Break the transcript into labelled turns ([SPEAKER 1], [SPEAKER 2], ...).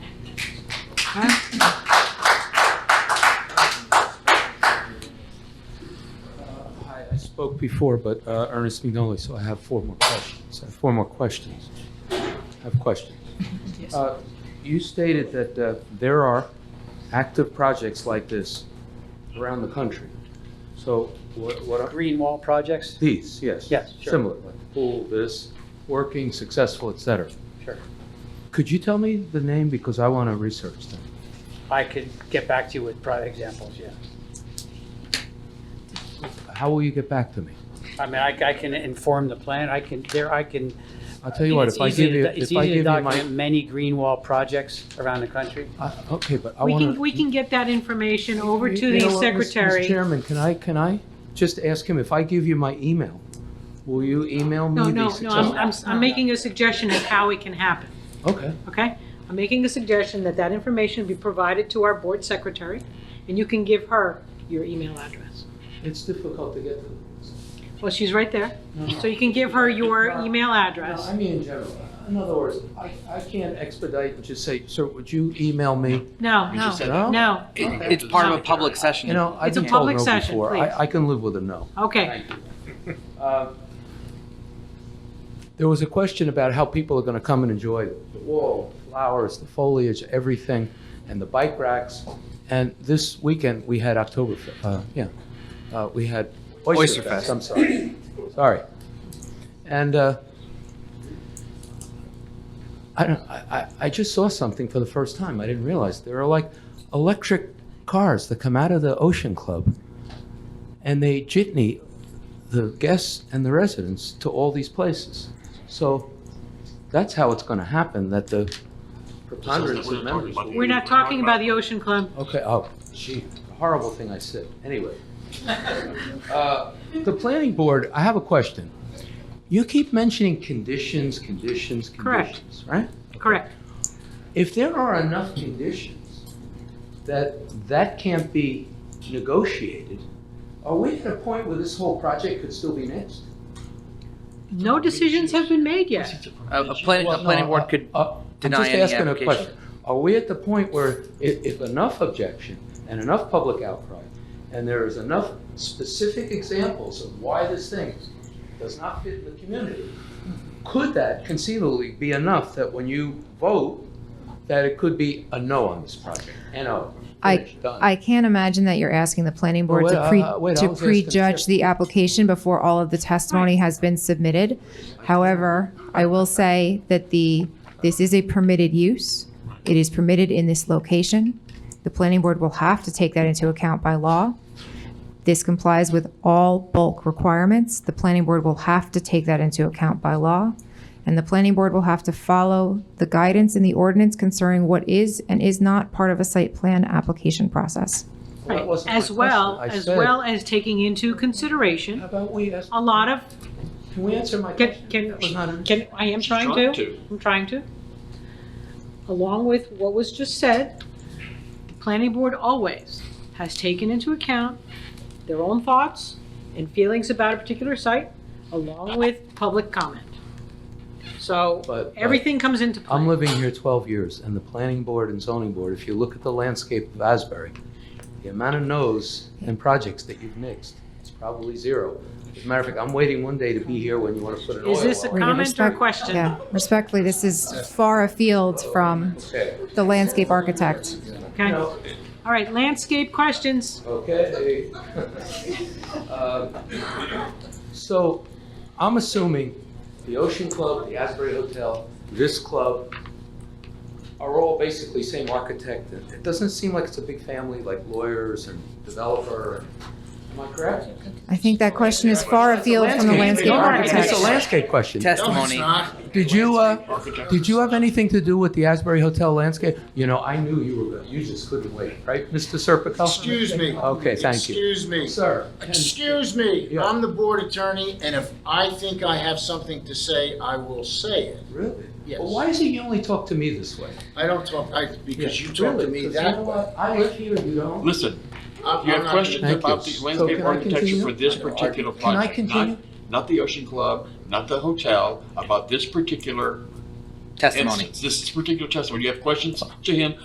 [SPEAKER 1] Hi, I spoke before, but uh, Ernest Magnoli, so I have four more questions. I have four more questions. I have questions.
[SPEAKER 2] Yes.
[SPEAKER 1] Uh, You stated that uh, there are active projects like this around the country. So what what are
[SPEAKER 3] Green wall projects?
[SPEAKER 1] these? Yes.
[SPEAKER 3] Yes, sure.
[SPEAKER 1] Similar, like the pool, this, working, successful, et cetera.
[SPEAKER 3] Sure.
[SPEAKER 1] Could you tell me the name because I want to research them?
[SPEAKER 3] I could get back to you with private examples, yeah.
[SPEAKER 1] How will you get back to me?
[SPEAKER 3] I mean, I, I can inform the plan, I can, there, I can.
[SPEAKER 1] I'll tell you what,
[SPEAKER 3] It's
[SPEAKER 1] if I
[SPEAKER 3] easy
[SPEAKER 1] give
[SPEAKER 3] to
[SPEAKER 1] you,
[SPEAKER 3] do- It's
[SPEAKER 1] if I
[SPEAKER 3] easy
[SPEAKER 1] give
[SPEAKER 3] to
[SPEAKER 1] you
[SPEAKER 3] document
[SPEAKER 1] my,
[SPEAKER 3] many green wall projects around the country.
[SPEAKER 1] I- okay, but I
[SPEAKER 2] Uh, We
[SPEAKER 1] want to.
[SPEAKER 2] can, we can get that information over
[SPEAKER 1] You-
[SPEAKER 2] to
[SPEAKER 1] you
[SPEAKER 2] the
[SPEAKER 1] know what, Mr. Mr.
[SPEAKER 2] secretary.
[SPEAKER 1] Chairman, can I, can I just ask him, if I give you my email, will you email
[SPEAKER 2] No,
[SPEAKER 1] me the
[SPEAKER 2] no, no, I'm,
[SPEAKER 1] successful?
[SPEAKER 2] I'm, I'm making a suggestion of how it can happen,
[SPEAKER 1] Okay,
[SPEAKER 2] okay? I'm making a suggestion that that information be provided to our board secretary, and you can give her your email address.
[SPEAKER 1] it's difficult to get to.
[SPEAKER 2] Well, she's right there, so you can give her your email
[SPEAKER 1] No,
[SPEAKER 2] address.
[SPEAKER 1] I mean in general, in other words, I, I can't expedite and just say, sir, would you email me?
[SPEAKER 2] No,
[SPEAKER 4] You just said-
[SPEAKER 2] no,
[SPEAKER 1] No?
[SPEAKER 2] no,
[SPEAKER 4] It- It's part of a public session.
[SPEAKER 1] You know, I've
[SPEAKER 2] It's a
[SPEAKER 1] been told
[SPEAKER 2] public
[SPEAKER 1] no
[SPEAKER 2] session,
[SPEAKER 1] before.
[SPEAKER 2] please.
[SPEAKER 1] I, I can live with a no.
[SPEAKER 2] okay.
[SPEAKER 1] Uh, There was a question about how people are going to come and enjoy the wall, flowers, the foliage, everything, and the bike racks. And this weekend, we had October, uh, yeah, uh, we had Oyster
[SPEAKER 4] Oyster
[SPEAKER 1] Fest,
[SPEAKER 4] Fest.
[SPEAKER 1] I'm sorry. Sorry. And uh, I don't, I, I- I just saw something for the first time. I didn't realize. There are like electric cars that come out of the Ocean Club and they jitney the guests and the residents to all these places. So that's how it's going to happen, that the preponderance of members. will-
[SPEAKER 2] We're not talking about the Ocean Club.
[SPEAKER 1] Okay, oh, gee, horrible thing I said. Anyway. Uh, The planning board, I have a question. You keep mentioning conditions, conditions,
[SPEAKER 2] Correct.
[SPEAKER 1] conditions, right?
[SPEAKER 2] Correct.
[SPEAKER 1] If there are enough conditions that that can't be negotiated, are we at a point where this whole project could still be next?
[SPEAKER 2] No decisions have been made yet.
[SPEAKER 4] A, a planning, a planning board could, deny any
[SPEAKER 1] uh, I'm just asking a
[SPEAKER 4] application.
[SPEAKER 1] question. Are we at the point where if, if enough objection and enough public outcry, and there is enough specific examples of why this thing does not fit the community, could that conceivably be enough that when you vote, that it could be a no on this project? N-O,
[SPEAKER 5] I-
[SPEAKER 1] finished, done?
[SPEAKER 5] I can't imagine that you're asking the planning board
[SPEAKER 1] Well,
[SPEAKER 5] to,
[SPEAKER 1] wait,
[SPEAKER 5] pre-
[SPEAKER 1] uh, wait, I
[SPEAKER 5] to
[SPEAKER 1] was asking
[SPEAKER 5] prejudge
[SPEAKER 1] Sarah.
[SPEAKER 5] the application before all of the testimony has been submitted. However, I will say that the, this is a permitted use. It is permitted in this location. The planning board will have to take that into account by law. This complies with all bulk requirements. The planning board will have to take that into account by law. And the planning board will have to follow the guidance in the ordinance concerning what is and is not part of a site plan application process.
[SPEAKER 1] Well, that wasn't my
[SPEAKER 2] As well,
[SPEAKER 1] question. I
[SPEAKER 2] as
[SPEAKER 1] said-
[SPEAKER 2] well as taking into
[SPEAKER 1] How
[SPEAKER 2] consideration
[SPEAKER 1] about we ask,
[SPEAKER 2] a lot of,
[SPEAKER 1] can we answer my
[SPEAKER 2] can,
[SPEAKER 1] question?
[SPEAKER 2] can,
[SPEAKER 1] That was not an-
[SPEAKER 2] can, I am trying to, I'm trying to. Along with what was just said, the planning board always has taken into account their own thoughts and feelings about a particular site, along with public comment. So
[SPEAKER 1] But- but-
[SPEAKER 2] everything comes into play.
[SPEAKER 1] I'm living here 12 years, and the planning board and zoning board, if you look at the landscape of Asbury, the amount of no's and projects that you've nixed, it's probably zero. As a matter of fact, I'm waiting one day to be here when you want to put an oil
[SPEAKER 2] Is this a
[SPEAKER 1] well.
[SPEAKER 5] We're gonna
[SPEAKER 2] comment or a
[SPEAKER 5] respect-
[SPEAKER 2] question?
[SPEAKER 5] Yeah, respectfully, this is far afield from
[SPEAKER 1] Okay,
[SPEAKER 5] the landscape architect.
[SPEAKER 2] Okay, all
[SPEAKER 1] No.
[SPEAKER 2] right, landscape questions.
[SPEAKER 1] okay. Um, So, I'm assuming the Ocean Club, the Asbury Hotel, this club are all basically same architect. It doesn't seem like it's a big family, like lawyers and developer. Am I correct?
[SPEAKER 5] I think that question is far afield from the landscape
[SPEAKER 1] It's
[SPEAKER 5] architect.
[SPEAKER 1] a landscape question.
[SPEAKER 4] testimony.
[SPEAKER 1] Did you, uh, did you have anything to do with the Asbury Hotel landscape? You know, I knew you were, good. you just couldn't wait, right, Mr. Serpico?
[SPEAKER 6] Excuse me.
[SPEAKER 1] Okay, thank you.
[SPEAKER 6] Excuse me.
[SPEAKER 1] Sir. can-
[SPEAKER 6] Excuse me.
[SPEAKER 1] Yeah.
[SPEAKER 6] I'm the board attorney, and if I think I have something to say, I will say it.
[SPEAKER 1] Really?
[SPEAKER 6] Yes.
[SPEAKER 1] Well, why is it you only talk to me this way?
[SPEAKER 6] I don't talk, I, because you
[SPEAKER 1] Yeah,
[SPEAKER 6] talk
[SPEAKER 1] really,
[SPEAKER 6] to me
[SPEAKER 1] 'cause you know
[SPEAKER 6] that way.
[SPEAKER 1] what? I live here, you don't.
[SPEAKER 7] Listen,
[SPEAKER 6] I'm-
[SPEAKER 7] you
[SPEAKER 6] I'm
[SPEAKER 7] have
[SPEAKER 6] not-
[SPEAKER 7] questions
[SPEAKER 1] Thank
[SPEAKER 7] about
[SPEAKER 1] you.
[SPEAKER 7] the
[SPEAKER 1] So
[SPEAKER 7] landscape
[SPEAKER 1] can I
[SPEAKER 7] architecture
[SPEAKER 1] continue?
[SPEAKER 7] for this particular
[SPEAKER 1] Can I
[SPEAKER 7] project. not-
[SPEAKER 1] continue?
[SPEAKER 7] Not the Ocean Club, not the hotel, about this particular
[SPEAKER 4] Testimony.
[SPEAKER 7] instance, this particular testimony. You have questions to him